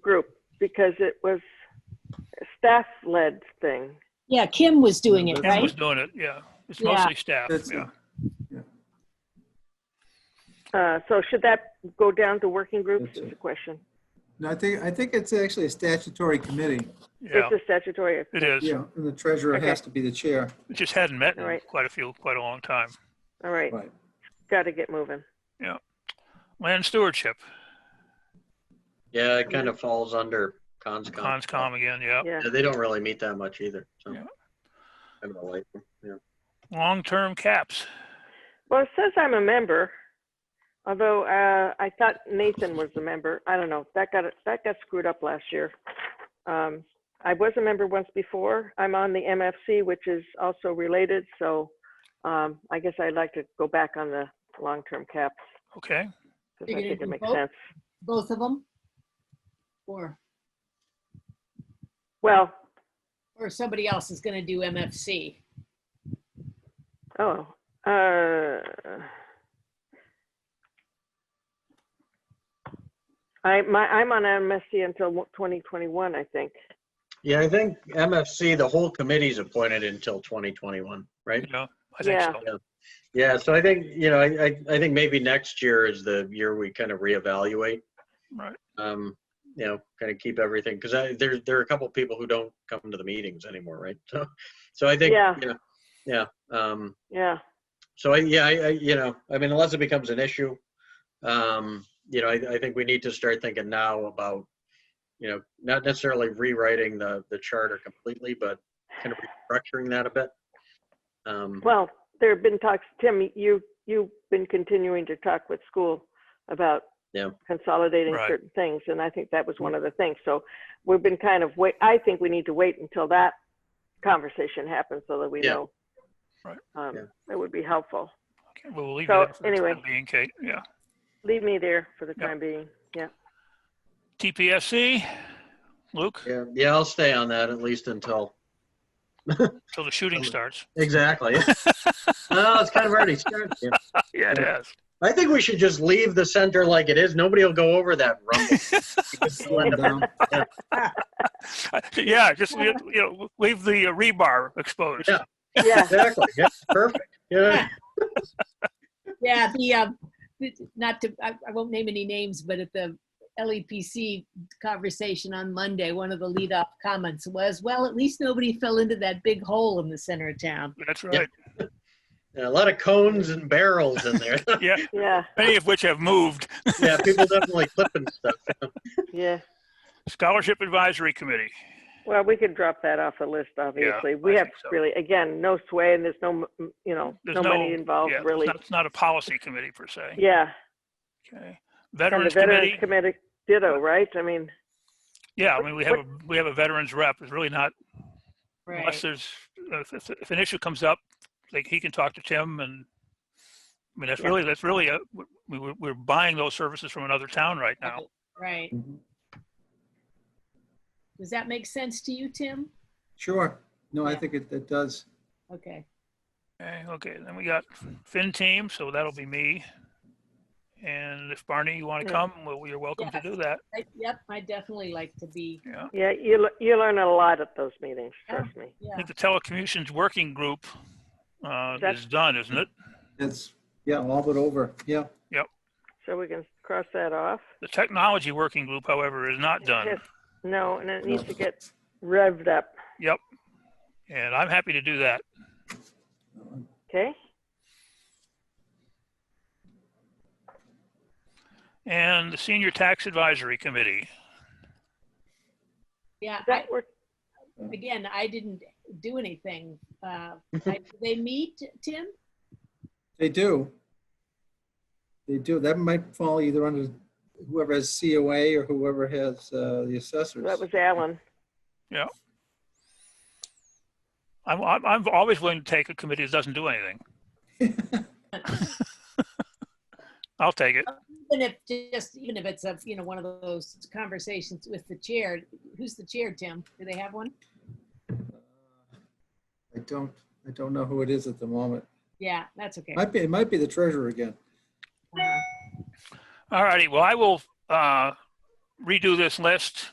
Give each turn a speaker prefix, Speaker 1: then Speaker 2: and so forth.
Speaker 1: group because it was a staff-led thing.
Speaker 2: Yeah, Kim was doing it,
Speaker 3: Kim
Speaker 2: right?
Speaker 3: was doing it, yeah. It's
Speaker 2: Yeah.
Speaker 3: mostly staff,
Speaker 4: That's-
Speaker 3: yeah.
Speaker 1: Uh, So should that go down to working groups
Speaker 4: That's
Speaker 1: is
Speaker 4: it.
Speaker 1: the question.
Speaker 4: No, I think, I think it's actually a statutory committee.
Speaker 3: Yeah,
Speaker 1: It's a statutory,
Speaker 3: it is.
Speaker 4: Yeah, and the treasurer
Speaker 1: Okay.
Speaker 4: has to be the chair.
Speaker 3: It just hadn't met in
Speaker 1: Right.
Speaker 3: quite a few, quite a long time.
Speaker 1: all right,
Speaker 4: Right.
Speaker 1: got to get moving.
Speaker 3: Land stewardship,
Speaker 5: Yeah, it kind of falls under conscom.
Speaker 3: conscom again, yeah.
Speaker 1: Yeah,
Speaker 5: Yeah, they don't really meet that much either. So.
Speaker 3: Yeah.
Speaker 5: I don't like them. Yeah.
Speaker 3: Long-term caps,
Speaker 1: well, it says I'm a member, although uh, I thought Nathan was the member. I don't know, that got, that got screwed up last year. Um, I was a member once before. I'm on the MFC, which is also related, so um, I guess I'd like to go back on the long-term caps.
Speaker 3: okay.
Speaker 1: Because
Speaker 6: You're
Speaker 1: I
Speaker 6: gonna
Speaker 1: think it
Speaker 6: do
Speaker 1: makes
Speaker 6: both?
Speaker 1: sense.
Speaker 6: both of them? Or,
Speaker 1: Well,
Speaker 6: or somebody else is gonna do MFC?
Speaker 1: oh, uh, I, my, I'm on MSC until 2021, I think.
Speaker 5: yeah, I think MFC, the whole committee's appointed until 2021, right?
Speaker 3: Yeah, I think
Speaker 1: Yeah.
Speaker 3: so.
Speaker 5: Yeah, so I think, you know, I, I, I think maybe next year is the year we kind of reevaluate.
Speaker 3: Right.
Speaker 5: Um, you know, kind of keep everything, because I, there, there are a couple people who don't come to the meetings anymore, right? So, so I think,
Speaker 1: Yeah.
Speaker 5: you know, yeah, um,
Speaker 1: Yeah,
Speaker 5: So I, yeah, I, I, you know, I mean, unless it becomes an issue, um, you know, I, I think we need to start thinking now about, you know, not necessarily rewriting the, the charter completely, but kind of restructuring that a bit. Um,
Speaker 1: well, there have been talks, Tim, you, you've been continuing to talk with school about
Speaker 5: Yeah.
Speaker 1: consolidating
Speaker 3: Right.
Speaker 1: certain things, and I think that was one of the things. So we've been kind of wait, I think we need to wait until that conversation happens so that we
Speaker 5: Yeah.
Speaker 1: know.
Speaker 3: Right.
Speaker 1: Um,
Speaker 5: Yeah.
Speaker 1: That would be helpful.
Speaker 3: Okay, well, we'll leave
Speaker 1: So,
Speaker 3: that for the time
Speaker 1: anyway.
Speaker 3: being, Kate, yeah.
Speaker 1: Leave me there for the
Speaker 3: Yeah.
Speaker 1: time being. Yeah.
Speaker 3: TPSC, Luke,
Speaker 5: yeah, yeah, I'll stay on that at least until,
Speaker 3: till the shooting starts.
Speaker 5: exactly. No, it's kind of already started. yeah.
Speaker 3: Yeah, it is.
Speaker 5: I think we should just leave the center like it is. Nobody will go over that rumble. Just let
Speaker 4: Slow
Speaker 5: them-
Speaker 4: down.
Speaker 3: Yeah, just, you know, leave the uh, rebar exposed.
Speaker 5: Yeah.
Speaker 1: Yeah.
Speaker 5: Exactly, yeah, perfect. Yeah,
Speaker 6: Yeah, the,
Speaker 2: uh,
Speaker 6: um, th- not to, I, I won't name any names, but at the LEPC conversation on Monday, one of the lead up comments was, well, at least nobody fell into that big hole in the center of town.
Speaker 3: That's right.
Speaker 5: Yeah, a lot of cones and barrels in there.
Speaker 3: Yeah,
Speaker 1: Yeah,
Speaker 3: many of which have moved.
Speaker 5: Yeah, people definitely clipping stuff.
Speaker 1: yeah.
Speaker 3: Scholarship Advisory Committee,
Speaker 1: Well, we could drop that off the list, obviously. We
Speaker 3: I
Speaker 1: have
Speaker 3: think so.
Speaker 1: really, again, no sway and there's no, m- you know,
Speaker 3: There's
Speaker 1: no
Speaker 3: no-
Speaker 1: money involved,
Speaker 3: yeah, it's
Speaker 1: Oh, really.
Speaker 3: not- it's not a policy committee per se.
Speaker 1: Yeah.
Speaker 3: Okay.
Speaker 1: And the
Speaker 3: Veterans
Speaker 1: Veterans
Speaker 3: Committee,
Speaker 1: Committee, ditto, right? I mean,
Speaker 3: yeah, I mean, we have, a we have a veterans rep, it's really not unless
Speaker 6: Right.
Speaker 3: there's, if, if, if an issue comes up, like he can talk to Tim and, I mean, that's
Speaker 1: Yeah.
Speaker 3: really, that's really, a- we, we're- we're buying those services from another town right now.
Speaker 6: Right. Does that make sense to you, Tim?
Speaker 4: Sure. No, I
Speaker 6: Yeah.
Speaker 4: think it, it does.
Speaker 6: Okay.
Speaker 3: Okay, okay, then we got Fin Team, so that'll be me. And if Barney, you want
Speaker 1: Yeah.
Speaker 3: to come, well, you're welcome to
Speaker 6: Yeah.
Speaker 3: do that,
Speaker 6: I- Yep, I definitely like to be,
Speaker 3: yeah.
Speaker 1: yeah, you, le- you learn a lot at those meetings,
Speaker 6: Yeah.
Speaker 1: trust me.
Speaker 3: I
Speaker 6: yeah.
Speaker 3: think the telecommunications working group, uh,
Speaker 1: That's-
Speaker 3: is done, isn't it?
Speaker 4: It's, yeah, all but over. Yeah.
Speaker 1: So we can cross that off.
Speaker 3: The technology working group, however, is not done.
Speaker 1: Yes. No, and it needs to get revved up,
Speaker 3: Yep. And I'm happy to do that.
Speaker 1: okay?
Speaker 3: And the Senior Tax Advisory Committee,
Speaker 6: Yeah,
Speaker 1: Does
Speaker 6: I-
Speaker 1: That work,
Speaker 6: again, I didn't do anything. Uh, I- do They meet, Tim?
Speaker 4: They do. They do. That might fall either under whoever has COA or whoever has uh, the assessors.
Speaker 1: that was Alan.
Speaker 3: I'm, I'm, I'm always willing to take a committee that doesn't do anything. I'll take it.
Speaker 6: Even if, just, even if it's a, you know, one of those conversations with the chair, who's the chair, Tim? Do they have one?
Speaker 4: I don't, I don't know who it is at the moment.
Speaker 6: Yeah, that's okay.
Speaker 4: Might be, it might be the treasurer again.
Speaker 6: Uh,
Speaker 3: All righty, well, I will, uh, redo this list